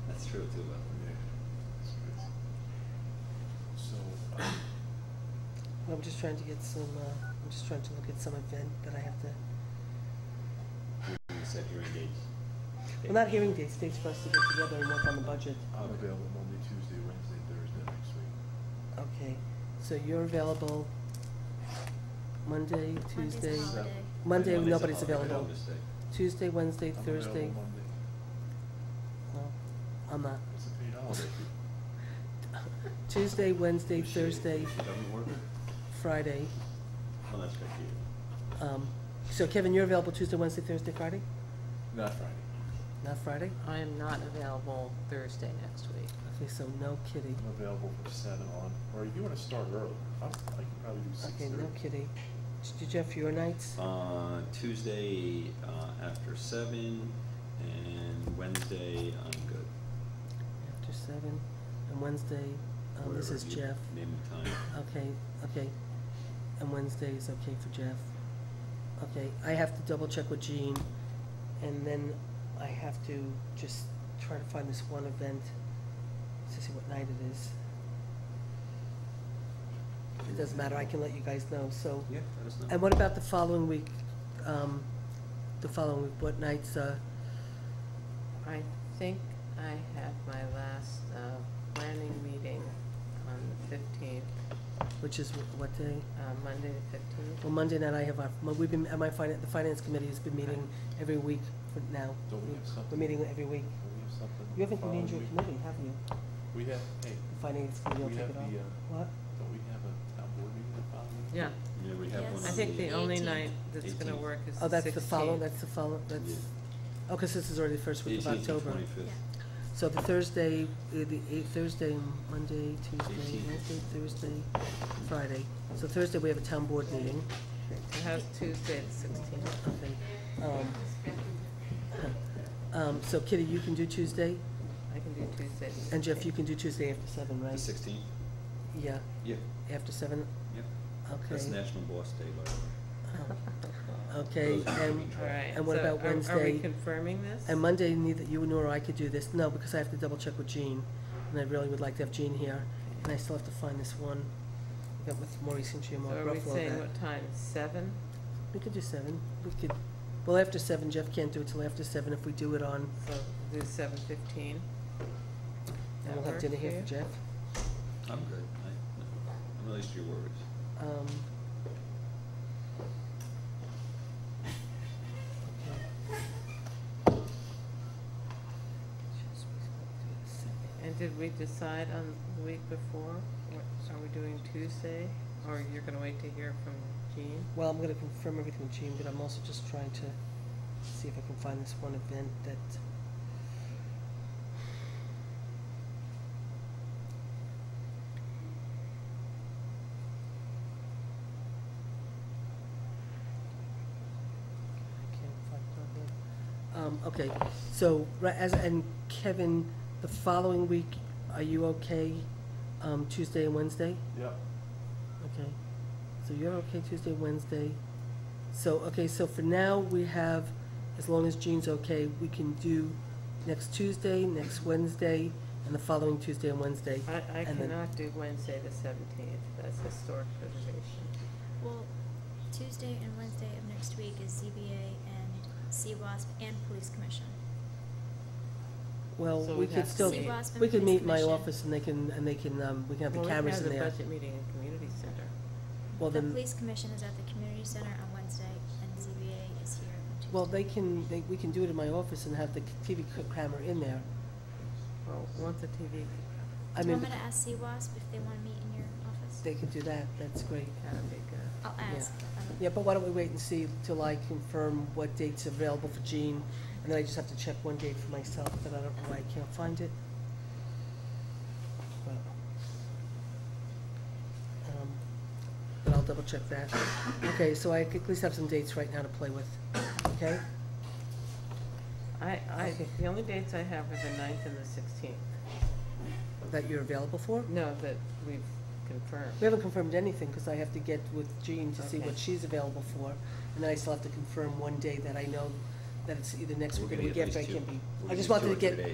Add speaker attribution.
Speaker 1: true too, though.
Speaker 2: So, um,
Speaker 3: I'm just trying to get some, uh, I'm just trying to look at some event that I have to,
Speaker 1: You said hearing dates.
Speaker 3: well, not hearing dates, dates for us to get together and work on the budget.
Speaker 2: I'm
Speaker 1: Okay.
Speaker 2: available Monday, Tuesday, Wednesday, Thursday next week.
Speaker 3: Okay, so you're available Monday,
Speaker 4: Monday's a
Speaker 3: Tuesday,
Speaker 4: holiday.
Speaker 3: Monday,
Speaker 1: Monday's a
Speaker 3: nobody's
Speaker 1: holiday,
Speaker 3: available.
Speaker 1: Columbus Day.
Speaker 3: Tuesday, Wednesday,
Speaker 2: I'm
Speaker 3: Thursday,
Speaker 2: available Monday.
Speaker 3: no, I'm not.
Speaker 2: It's a paid holiday.
Speaker 3: Tuesday, Wednesday,
Speaker 1: Is she-
Speaker 3: Thursday,
Speaker 1: is She doesn't work?
Speaker 3: Friday.
Speaker 1: Oh, that's right, you.
Speaker 3: Um, so Kevin, you're available Tuesday, Wednesday, Thursday, Friday?
Speaker 2: Not Friday.
Speaker 3: Not Friday?
Speaker 5: I am not available Thursday next week.
Speaker 3: Okay, so no kitty.
Speaker 2: I'm available from seven on, or if you wanna start early, I'm, I can probably do six
Speaker 3: Okay,
Speaker 2: thirty.
Speaker 3: no kitty. Did you have your nights?
Speaker 1: Uh, Tuesday, uh, after seven, and Wednesday, I'm good.
Speaker 3: Um, After seven, and Wednesday, um, this
Speaker 1: Whatever
Speaker 3: is
Speaker 1: you
Speaker 3: Jeff.
Speaker 1: Name the time.
Speaker 3: Okay, okay. And Wednesday is okay for Jeff. Okay, I have to double check with Jean, and then I have to just try to find this one event to see what night it is. It doesn't matter, I can let you guys know, so.
Speaker 1: Yeah, let us know.
Speaker 3: And what about the following week, um, the following week, what nights, uh,
Speaker 5: I think I have my last uh, planning meeting on the 15th,
Speaker 3: which is wh- what day?
Speaker 5: uh, Monday the
Speaker 3: Well, Monday night I have our, my- we've been, my finance, the finance committee has been meeting every week for now.
Speaker 2: Don't we have
Speaker 3: We're
Speaker 2: something?
Speaker 3: meeting every week.
Speaker 2: Don't we have something?
Speaker 3: You haven't
Speaker 2: following
Speaker 3: named your
Speaker 2: week?
Speaker 3: committee, have you?
Speaker 2: We have, hey,
Speaker 3: The finance committee will
Speaker 2: We
Speaker 3: take
Speaker 2: have
Speaker 3: it on.
Speaker 2: the, uh,
Speaker 3: What?
Speaker 2: don't we have a town board meeting the following week?
Speaker 5: 15th. Yeah,
Speaker 1: Yeah, we have one on
Speaker 4: Yes.
Speaker 1: the.
Speaker 5: I think the only
Speaker 4: 18th.
Speaker 5: night that's gonna
Speaker 1: 18th.
Speaker 5: work is the 16th.
Speaker 3: Oh, that's the follow, that's the follow, that's, oh, because this is already the first week of
Speaker 1: Eighteenth and
Speaker 3: October.
Speaker 1: twenty-fifth.
Speaker 4: Yeah.
Speaker 3: So the Thursday, uh, the eight, Thursday, Monday, Tuesday,
Speaker 1: 18th.
Speaker 3: Wednesday, Thursday, Friday. So Thursday, we have a town board meeting.
Speaker 5: I have Tuesday the 16th.
Speaker 3: Okay. Um, Um, so Kitty, you can do Tuesday,
Speaker 5: I can do Tuesday the 16th.
Speaker 3: and Jeff, you can do Tuesday after seven, right?
Speaker 1: The sixteenth,
Speaker 3: Yeah,
Speaker 1: yeah,
Speaker 3: after seven,
Speaker 1: yeah.
Speaker 3: okay.
Speaker 1: That's National Boss Day, by the way.
Speaker 3: Oh, Okay,
Speaker 1: Those are
Speaker 3: and,
Speaker 1: keeping track.
Speaker 5: All right,
Speaker 3: And what
Speaker 5: so
Speaker 3: about
Speaker 5: are- Are
Speaker 3: Wednesday?
Speaker 5: we confirming this?
Speaker 3: and Monday, neither you nor I could do this, no, because I have to double check with Jean, and I really would like to have Jean here, and I still have to find this one, yeah, with Maurice and Jim,
Speaker 5: So
Speaker 3: I'll
Speaker 5: are we
Speaker 3: ruffle
Speaker 5: saying
Speaker 3: that.
Speaker 5: what time, 7?
Speaker 3: We could do seven, we could, well, after seven, Jeff can't do it till after seven, if we do it on,
Speaker 5: So do 7:15?
Speaker 3: and we'll have dinner here for Jeff.
Speaker 1: I'm good, I, I'm at least your worries.
Speaker 3: Um,
Speaker 5: And did we decide on the week before? What, are we doing Tuesday? Or you're gonna wait to hear from Jean?
Speaker 3: Well, I'm gonna confirm everything with Jean, but I'm also just trying to see if I can find this one event that. I can't find it on here. Um, okay, so, right, as, and Kevin, the following week, are you okay, um, Tuesday and Wednesday?
Speaker 2: Yep.
Speaker 3: Okay, so you're okay Tuesday, Wednesday. So, okay, so for now, we have, as long as Jean's okay, we can do next Tuesday, next Wednesday, and the following Tuesday and Wednesday.
Speaker 5: I, I
Speaker 3: And then-
Speaker 5: cannot do Wednesday the seventeenth, that's historic preservation.
Speaker 4: Well, Tuesday and Wednesday of next week is ZBA and CWASP and Police Commission.
Speaker 3: Well,
Speaker 5: So
Speaker 3: we
Speaker 5: we'd have
Speaker 3: could
Speaker 5: to
Speaker 3: still,
Speaker 5: meet.
Speaker 4: CWASP and
Speaker 3: we could
Speaker 4: Police
Speaker 3: meet my
Speaker 4: Commission.
Speaker 3: office and they can, and they can, um, we can have
Speaker 5: Well,
Speaker 3: the
Speaker 5: we
Speaker 3: cameras in
Speaker 5: have
Speaker 3: there.
Speaker 5: the budget meeting in community center.
Speaker 3: Well,
Speaker 4: The
Speaker 3: then,
Speaker 4: Police Commission is at the Community Center on Wednesday and ZBA is here on Tuesday.
Speaker 3: well, they can, they, we can do it in my office and have the TV c- camera in there.
Speaker 5: Well, once the TV,
Speaker 3: I
Speaker 4: Do you
Speaker 3: mean,
Speaker 4: want me to ask CWASP if they wanna meet in your office?
Speaker 3: they could do that, that's great.
Speaker 5: that'd be good.
Speaker 4: I'll ask. um, I don't-
Speaker 3: Yeah, but why don't we wait and see till I confirm what date's available for Jean, and then I just have to check one date for myself, that I don't know why I can't find it. But um, but I'll double check that. Okay, so I could at least have some dates right now to play with, okay?
Speaker 5: I, I,
Speaker 3: Okay.
Speaker 5: the only dates I have are the ninth and the sixteenth.
Speaker 3: That you're available for?
Speaker 5: No, that we've confirmed.
Speaker 3: We haven't confirmed anything, because I have to get with Jean to see
Speaker 5: Okay.
Speaker 3: what she's available for, and then I still have to confirm one day that I know that it's either next
Speaker 1: We're
Speaker 3: week or the
Speaker 1: gonna
Speaker 3: week
Speaker 1: get
Speaker 3: after, I
Speaker 1: these two-
Speaker 3: can't be.
Speaker 1: we're
Speaker 3: I
Speaker 1: gonna get
Speaker 3: just
Speaker 1: two
Speaker 3: wanted to
Speaker 1: or three
Speaker 3: get
Speaker 1: days.